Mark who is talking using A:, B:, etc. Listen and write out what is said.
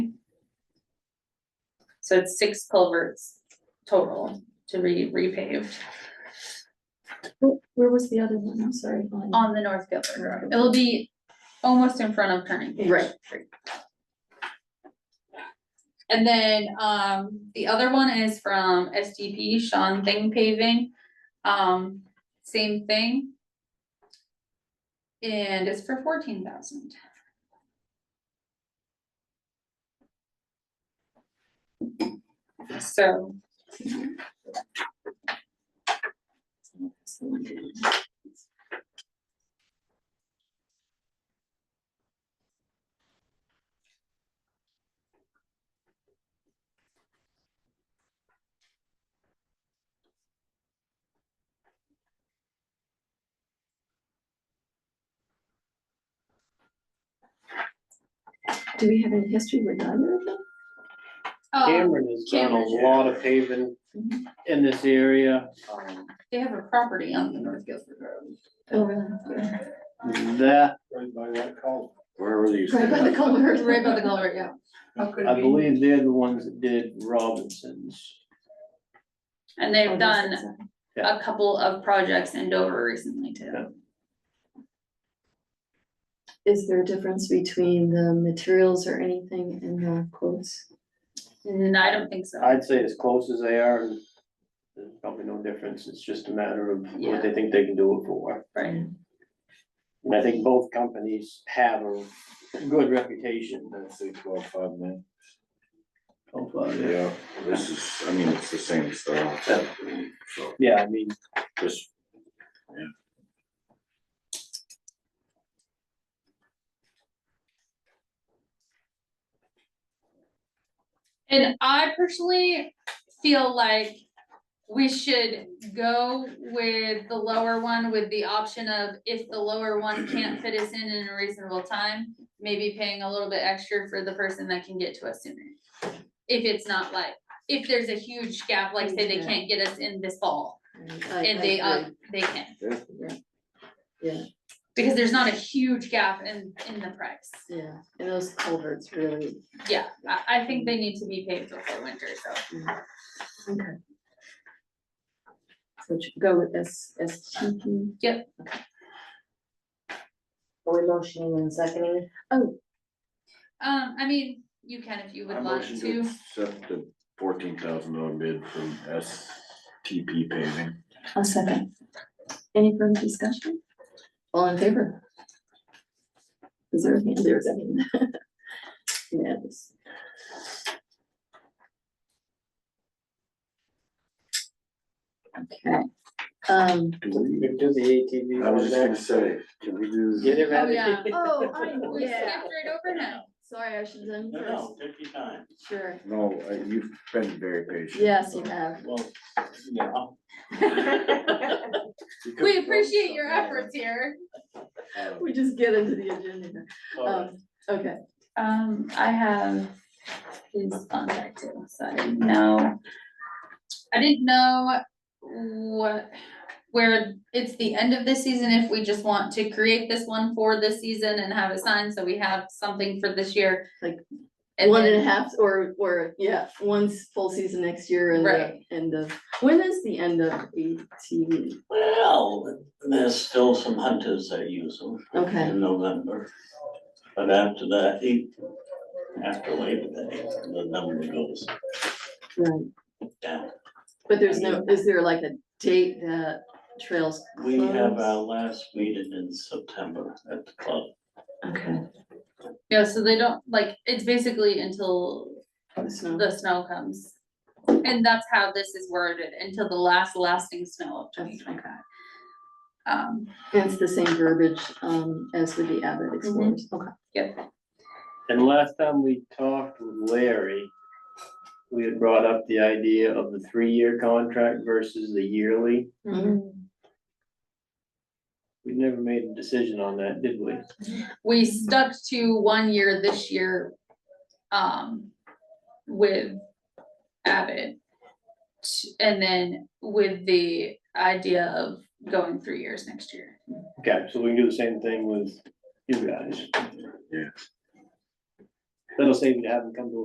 A: So it's six culverts total to re- repave
B: Where was the other one? I'm sorry.
A: on the North Gilbert Road. It'll be almost in front of Turning Page.
B: Right.
A: And then, um, the other one is from SDP, Sean Thing Paving, um, same thing. And it's for fourteen thousand. So,
B: Do we have any history with either of them?
A: um,
C: Cameron has done a
A: Cameron.
C: lot of paving in this area. Um,
A: they have a property on the North Guilford Road.
B: Oh, really?
C: That,
D: Right by that column.
E: Where were these?
B: Right by the culvert.
A: Right by the color, yeah.
C: I believe they're the ones that did Robinson's.
A: And
B: Oh,
A: they've done a couple of projects in Dover recently
C: Yeah.
A: too.
B: Is there a difference between the materials or anything in the quotes?
A: And I don't think so.
C: I'd say as close as they are, and there's probably no difference. It's just a matter of
A: Yeah.
C: what they think they can do it for.
A: Right.
C: And I think both companies have a good reputation.
D: That's six twelve five man.
E: Yeah, this is, I mean, it's the same stuff. So
C: Yeah, I mean,
E: just
A: And I personally feel like we should go with the lower one with the option of if the lower one can't fit us in in a reasonable time, maybe paying a little bit extra for the person that can get to us sooner. If it's not like, if there's a huge gap, like say they can't get us in this fall and they, uh, they can.
B: Yeah. Yeah.
A: Because there's not a huge gap in, in the price.
B: Yeah, and those culverts really,
A: Yeah, I, I think they need to be paved before winter, so.
B: okay. So should go with S, S T P.
A: Yep.
B: Are we motioning and seconding? Oh,
A: Um, I mean, you can if you
E: I
A: would like
E: motion to
A: to.
E: accept the fourteen thousand dollar bid from STP paving.
B: a second. Any further discussion? All in favor? Is there a hand there? I mean. Yes. Okay, um.
E: Do we,
C: you do the ATV.
E: I was just gonna say, can we do?
C: Get it
A: Oh,
C: ready.
A: yeah.
B: Oh, I,
A: We skipped right over now.
B: Sorry, I should have done first.
D: take your time.
B: Sure.
E: No, I- you've been very patient.
B: Yes, you have.
D: Well, yeah.
E: You could
A: We
E: have done
A: appreciate your
E: something
A: efforts here.
E: else.
B: We just get into the agenda. Um, okay.
A: Um, I have his contact too, so I didn't know. I didn't know what, where it's the end of this season, if we just want to create this one for this season and have it signed, so we have something for this year.
B: Like,
A: And
B: One and a
A: then-
B: half or, or, yeah, one's full season next year and
A: Right.
B: the end of, when is the end of ATV?
F: Well, there's still some hunters that use them
B: Okay,
F: in November. But after that, he, after Labor Day, the number goes
B: right,
F: down.
B: but there's no, is there like a date that trails
F: We have our
B: close?
F: last meeting in September at the club. um,
B: Okay.
A: Yeah, so they don't, like, it's basically until
B: so-
A: the snow comes. And that's how this is worded, until the last lasting snow of twenty
B: That's-
A: twenty five. Um,
B: and It's the same verbiage, um, as with the Abbott Explorers,
A: Mm-hmm.
B: okay.
C: And last time we talked with Larry, we had brought up the idea of the three-year contract versus the yearly.
B: Mm-hmm.
C: We never made a decision on that, did we?
A: we stuck to one year this year, um, with Abbott. t- And then with the idea of going three years next year.
C: Okay, so we can do the same thing with you guys.
E: Yeah.
C: That'll save you having to come to a